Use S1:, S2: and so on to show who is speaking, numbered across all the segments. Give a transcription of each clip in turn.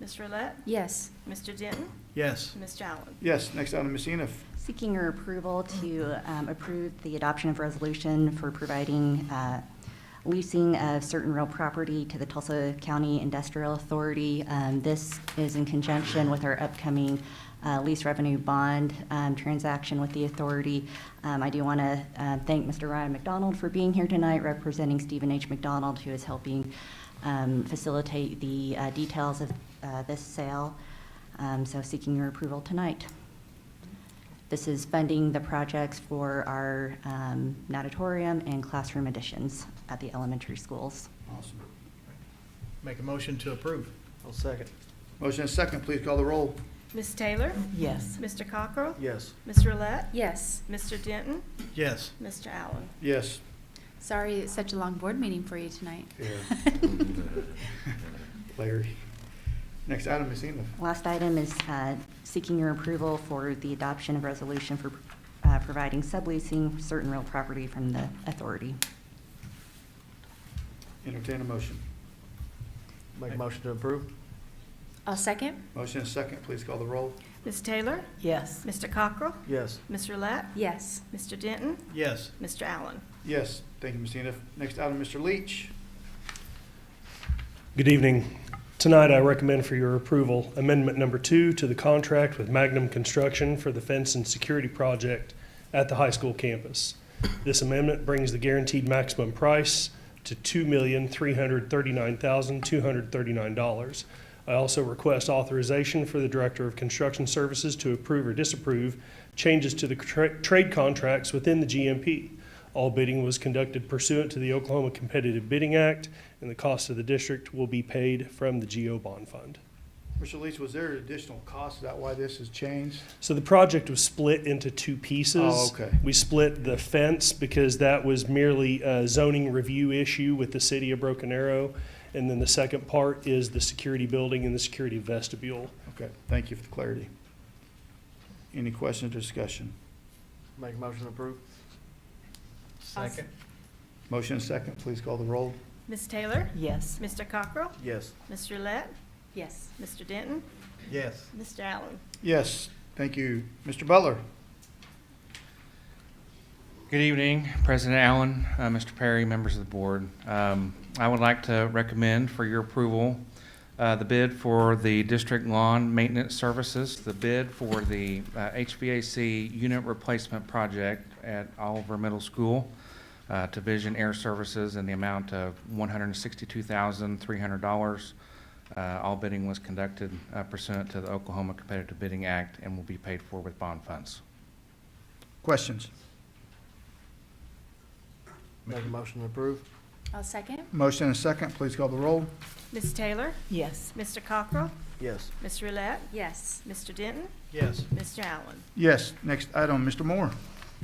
S1: Ms. Roulette,
S2: Yes.
S1: Mr. Denton,
S3: Yes.
S1: Mr. Allen.
S3: Yes, next item, Ms. Eniff.
S4: Seeking your approval to um, approve the adoption of resolution for providing uh, leasing of certain real property to the Tulsa County Industrial Authority. Um, This is in conjunction with our upcoming uh, lease revenue bond um, transaction with the authority. Um, I do want to thank Mr. Ryan McDonald for being here tonight, representing Stephen H. McDonald, who is helping um, facilitate the uh, details of uh, this sale. Um, So seeking your approval tonight. This is funding the projects for our um, natatorium and classroom additions at the elementary schools.
S3: Awesome. Make a motion to approve.
S5: I'll second.
S3: Motion and second, please call the roll.
S1: Ms. Taylor,
S2: Yes.
S1: Mr. Cockrell,
S5: Yes.
S1: Ms. Roulette,
S2: Yes.
S1: Mr. Denton,
S3: Yes.
S1: Mr. Allen.
S3: Yes.
S2: Sorry, it's such a long board meeting for you tonight.
S3: Larry. Next item, Ms. Eniff.
S4: Last item is uh, seeking your approval for the adoption of resolution for uh, providing subleasing certain real property from the authority.
S3: Entertain a motion.
S5: Make a motion to approve?
S2: I'll second.
S3: Motion and second, please call the roll.
S1: Ms. Taylor,
S2: Yes.
S1: Mr. Cockrell,
S5: Yes.
S1: Ms. Roulette,
S2: Yes.
S1: Mr. Denton,
S3: Yes.
S1: Mr. Allen.
S3: Yes, thank you, Ms. Eniff. Next item, Mr. Leach.
S6: Good evening. Tonight, I recommend for your approval Amendment Number Two to the contract with Magnum Construction for the fence and security project at the high school campus. This amendment brings the guaranteed maximum price to $2,339,239. I also request authorization for the Director of Construction Services to approve or disapprove changes to the tra- trade contracts within the GMP. All bidding was conducted pursuant to the Oklahoma Competitive Bidding Act, and the cost of the district will be paid from the GO bond fund.
S3: Mr. Leach, was there additional cost? Is that why this has changed?
S6: So the project was split into two pieces.
S3: Oh, okay.
S6: We split the fence because that was merely a zoning review issue with the city of Broken Arrow. And then the second part is the security building and the security vestibule.
S3: Okay, thank you for the clarity. Any questions or discussion?
S5: Make a motion to approve?
S2: Second.
S3: Motion and second, please call the roll.
S1: Ms. Taylor,
S2: Yes.
S1: Mr. Cockrell,
S5: Yes.
S1: Ms. Roulette,
S2: Yes.
S1: Mr. Denton,
S5: Yes.
S1: Mr. Allen.
S3: Yes, thank you. Mr. Butler?
S7: Good evening, President Allen, uh, Mr. Perry, members of the board. Um, I would like to recommend for your approval uh, the bid for the district lawn maintenance services, the bid for the uh, HVAC unit replacement project at Oliver Middle School uh, to Vision Air Services in the amount of $162,300. Uh, All bidding was conducted uh, pursuant to the Oklahoma Competitive Bidding Act and will be paid for with bond funds.
S3: Questions?
S5: Make a motion to approve?
S2: I'll second.
S3: Motion and second, please call the roll.
S1: Ms. Taylor,
S2: Yes.
S1: Mr. Cockrell,
S5: Yes.
S1: Ms. Roulette,
S2: Yes.
S1: Mr. Denton,
S3: Yes.
S1: Mr. Allen.
S3: Yes, next item, Mr. Moore.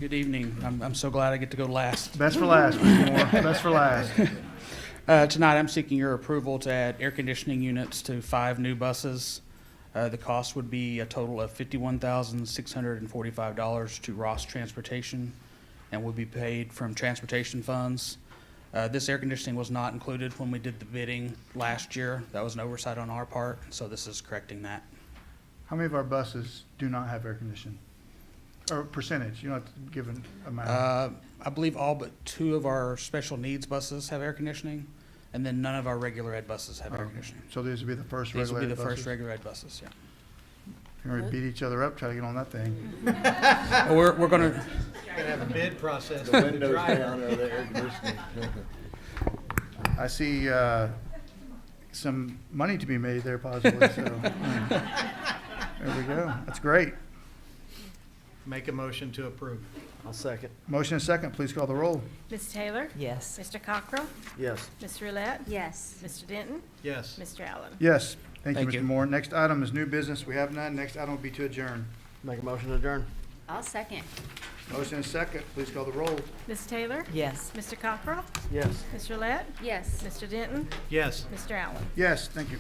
S8: Good evening. I'm, I'm so glad I get to go last.
S3: Best for last, Mr. Moore, best for last.
S8: Uh, tonight, I'm seeking your approval to add air conditioning units to five new buses. Uh, the cost would be a total of fifty-one thousand, six hundred and forty-five dollars to Ross Transportation and would be paid from transportation funds. Uh, this air conditioning was not included when we did the bidding last year. That was an oversight on our part, so this is correcting that.
S3: How many of our buses do not have air conditioning? Or percentage, you don't have to give an amount.
S8: Uh, I believe all but two of our special needs buses have air conditioning, and then none of our regular ed buses have air
S3: Okay.
S8: conditioning.
S3: So these would be the first
S8: These will be
S3: regulated
S8: the first
S3: buses.
S8: regular ed buses, yeah.
S3: We're gonna beat each other up, try to get on that thing.
S8: But We're, we're gonna,
S5: The windows down or the air conditioning.
S3: I see, uh, some money to be made there possibly, so. mm. There we go, that's great.
S5: Make a motion to approve. I'll second.
S3: Motion and second, please call the roll.
S1: Ms. Taylor,
S2: Yes.
S1: Mr. Cockrell,
S5: Yes.
S1: Ms. Roulette,
S2: Yes.
S1: Mr. Denton,
S5: Yes.
S1: Mr. Allen.
S3: Yes, thank you,
S8: Thank
S3: Mr.
S8: you.
S3: Moore. Next item is new business, we have none. Next item will be to adjourn.
S5: Make a motion to adjourn?
S2: I'll second.
S3: Motion and second, please call the roll.
S1: Ms. Taylor,
S2: Yes.
S1: Mr. Cockrell,
S5: Yes.
S1: Ms. Roulette,
S2: Yes.
S1: Mr. Denton,
S5: Yes.
S1: Mr. Allen.
S3: Yes, thank you.